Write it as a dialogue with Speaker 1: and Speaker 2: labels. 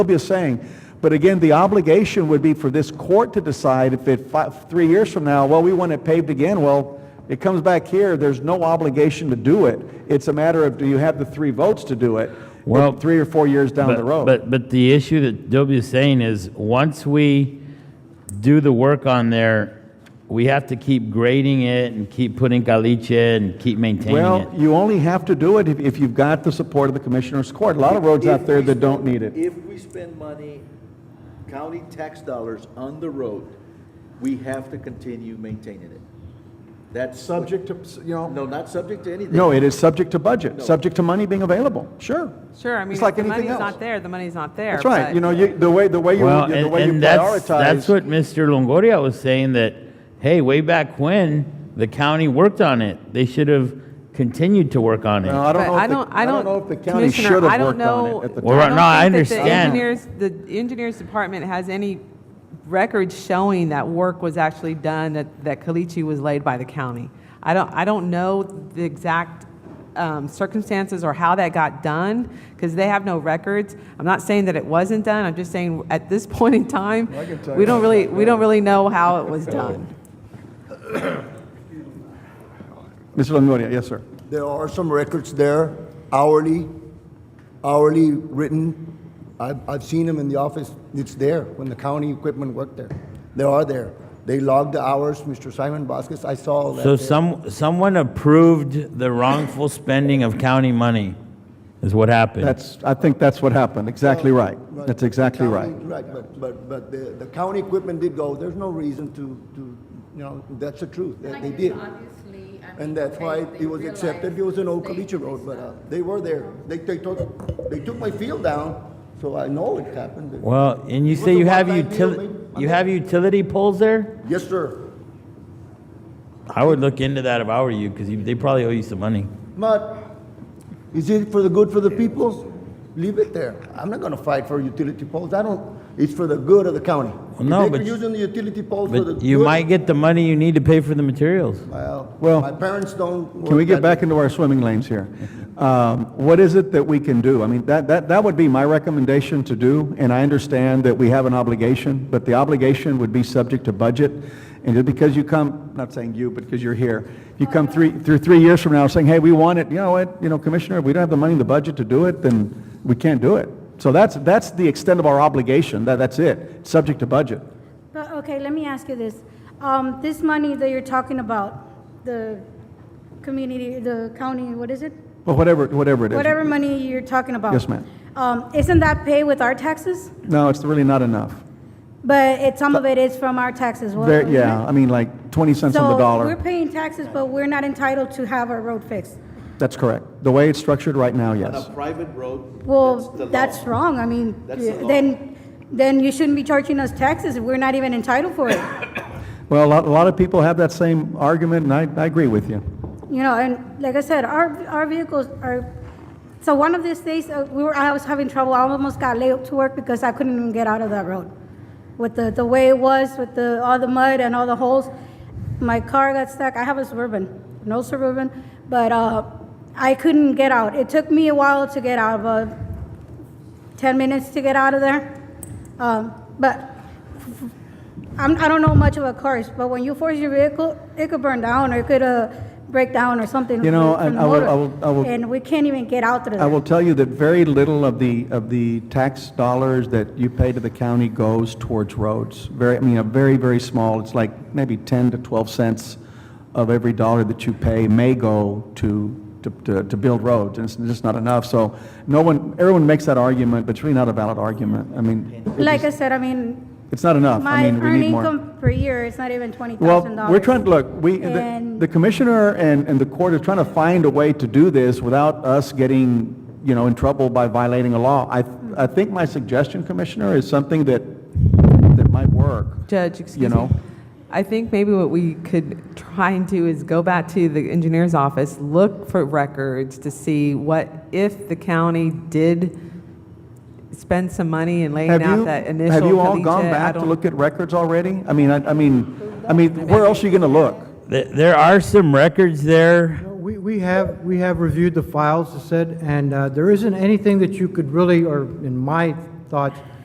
Speaker 1: be saying. But again, the obligation would be for this court to decide if it, fi- three years from now, well, we want it paved again, well, it comes back here, there's no obligation to do it. It's a matter of, do you have the three votes to do it?
Speaker 2: Well,
Speaker 1: Three or four years down the
Speaker 2: But-
Speaker 1: road.
Speaker 2: But, but the issue that W is saying is, once we do the work on there, we have to keep grading it and keep putting caliche and keep maintaining
Speaker 1: Well,
Speaker 2: it.
Speaker 1: you only have to do it if, if you've got the support of the commissioner's court. A lot of roads out there that don't need it.
Speaker 3: If we spend money, county tax dollars on the road, we have to continue maintaining it. That's.
Speaker 4: subject to, you know,
Speaker 3: No, not subject to anything.
Speaker 1: No, it is subject to budget, subject to money being available, sure.
Speaker 5: Sure, I mean,
Speaker 1: It's
Speaker 5: if
Speaker 1: like
Speaker 5: the
Speaker 1: anything
Speaker 5: money's
Speaker 1: else.
Speaker 5: not there, the money's not there.
Speaker 1: That's right,
Speaker 5: but-
Speaker 1: you know, you, the way, the way you,
Speaker 2: Well,
Speaker 1: the
Speaker 2: and,
Speaker 1: way you
Speaker 2: and that's, that's
Speaker 1: prioritize.
Speaker 2: what Mr. Longoria was saying, that, hey, way back when, the county worked on it. They should have continued to work on
Speaker 1: Well,
Speaker 2: it.
Speaker 1: I don't
Speaker 5: but
Speaker 1: know if the- I don't know if the county should have worked on it at the time.
Speaker 2: Well, right
Speaker 5: don't
Speaker 2: now, I
Speaker 5: think that
Speaker 2: understand.
Speaker 5: The engineers, the engineers department has any records showing that work was actually done, that, that caliche was laid by the county. I don't, I don't know the exact um, circumstances or how that got done, because they have no records. I'm not saying that it wasn't done, I'm just saying, at this point in time, we don't really, we don't really know how it was done.
Speaker 1: Mr. Longoria, yes, sir.
Speaker 6: There are some records there, hourly, hourly written. I've, I've seen them in the office. It's there when the county equipment worked there. They are there. They logged the hours. Mr. Simon Vasquez, I saw all that.
Speaker 2: So
Speaker 6: there.
Speaker 2: some, someone approved the wrongful spending of county money, is what happened.
Speaker 1: That's, I think that's what happened, exactly right.
Speaker 6: But
Speaker 1: That's
Speaker 6: the
Speaker 1: exactly right.
Speaker 6: county- Right, but, but, but the, the county equipment did go. There's no reason to, to, you know, that's the truth. That
Speaker 7: Like,
Speaker 6: They
Speaker 7: it's
Speaker 6: did.
Speaker 7: obviously, I mean,
Speaker 6: And that's
Speaker 7: they-
Speaker 6: why
Speaker 7: they
Speaker 6: it was
Speaker 7: realized
Speaker 6: accepted, it was an old
Speaker 7: they-
Speaker 6: Caliche Road, but uh, they were there. They, they took, they took my field down, so I know it happened.
Speaker 2: Well, and you
Speaker 6: It was
Speaker 2: say
Speaker 6: a
Speaker 2: you have
Speaker 6: one-time deal,
Speaker 2: utility,
Speaker 6: man.
Speaker 2: you have utility poles there?
Speaker 6: Yes, sir.
Speaker 2: I would look into that if I were you, because they probably owe you some money.
Speaker 6: But is it for the good for the people? Leave it there. I'm not gonna fight for utility poles. I don't, it's for the good of the county. If
Speaker 2: no,
Speaker 6: they
Speaker 2: but
Speaker 6: were
Speaker 2: you-
Speaker 6: using the utility poles for the
Speaker 2: But you
Speaker 6: good-
Speaker 2: might get the money you need to pay for the materials.
Speaker 1: Well,
Speaker 6: Well, my parents don't.
Speaker 1: Can we
Speaker 6: work
Speaker 1: get
Speaker 6: that-
Speaker 1: back into our swimming lanes here? Um, What is it that we can do? I mean, that, that, that would be my recommendation to do, and I understand that we have an obligation, but the obligation would be subject to budget. And just because you come, not saying you, but because you're here, you come three, through three years from now saying, hey, we want it, you know what, you know, Commissioner, if we don't have the money in the budget to do it, then we can't do it. So that's, that's the extent of our obligation, that, that's it, subject to budget.
Speaker 8: But, okay, let me ask you this. Um, this money that you're talking about, the community, the county, what is it?
Speaker 1: But whatever, whatever it is.
Speaker 8: Whatever money you're talking about.
Speaker 1: Yes, ma'am.
Speaker 8: Um, isn't that paid with our taxes?
Speaker 1: No, it's really not enough.
Speaker 8: But it, some of it is from our taxes. well,
Speaker 1: There,
Speaker 8: isn't
Speaker 1: yeah,
Speaker 8: it?
Speaker 1: I mean, like 20 cents on the dollar.
Speaker 8: So we're paying taxes, but we're not entitled to have our road fixed.
Speaker 1: That's correct. The way it's structured right now,
Speaker 3: On a
Speaker 1: yes.
Speaker 3: private road.
Speaker 8: Well,
Speaker 3: the law.
Speaker 8: that's wrong. I mean,
Speaker 3: That's the law.
Speaker 8: then, then you shouldn't be charging us taxes if we're not even entitled for it.
Speaker 1: Well, a lot, a lot of people have that same argument, and I, I agree with you.
Speaker 8: you know, and like I said, our, our vehicles are, so one of these days, uh, we were, I was having trouble, I almost got laid up to work because I couldn't even get out of that road. With the, the way it was, with the, all the mud and all the holes, my car got stuck, I have a Suburban, no Suburban, but, uh, I couldn't get out, it took me a while to get out, but 10 minutes to get out of there. Um, But I'm, I don't know much about cars, but when you force your vehicle, it could burn down or it could uh, break down or something.
Speaker 1: You know,
Speaker 8: from the
Speaker 1: I- I will-
Speaker 8: motor.
Speaker 1: I will- I will-
Speaker 8: And we can't even get out through
Speaker 1: I will
Speaker 8: there.
Speaker 1: tell you that very little of the, of the tax dollars that you pay to the county goes towards roads. Very, I mean, a very, very small, it's like maybe 10 to 12 cents of every dollar that you pay may go to, to, to, to build roads, and it's just not enough. So no one, everyone makes that argument, but it's really not a valid argument. I mean, it
Speaker 8: Like I
Speaker 1: just-
Speaker 8: said, I mean,
Speaker 1: it's not enough.
Speaker 8: my
Speaker 1: I mean, we
Speaker 8: earned
Speaker 1: need more.
Speaker 8: income per year is not even $20,000.
Speaker 1: Well, we're trying, to look, we, the
Speaker 8: And-
Speaker 1: the commissioner and, and the court are trying to find a way to do this without us getting, you know, in trouble by violating a law. I, I think my suggestion, Commissioner, is something that, that might work.
Speaker 5: Judge, excuse
Speaker 1: know?
Speaker 5: me. I think maybe what we could try and do is go back to the engineer's office, look for records to see what, if the county did spend some money in laying
Speaker 1: Have
Speaker 5: out
Speaker 1: you,
Speaker 5: that initial.
Speaker 1: have you all
Speaker 5: caliche,
Speaker 1: gone
Speaker 5: I
Speaker 1: back to
Speaker 5: don't-
Speaker 1: look at records already? I mean, I, I mean, I mean, where else are you gonna look?
Speaker 2: There, there are some records there.
Speaker 9: We, we have, we have reviewed the files, as said, and uh, there isn't anything that you could really, or in my thoughts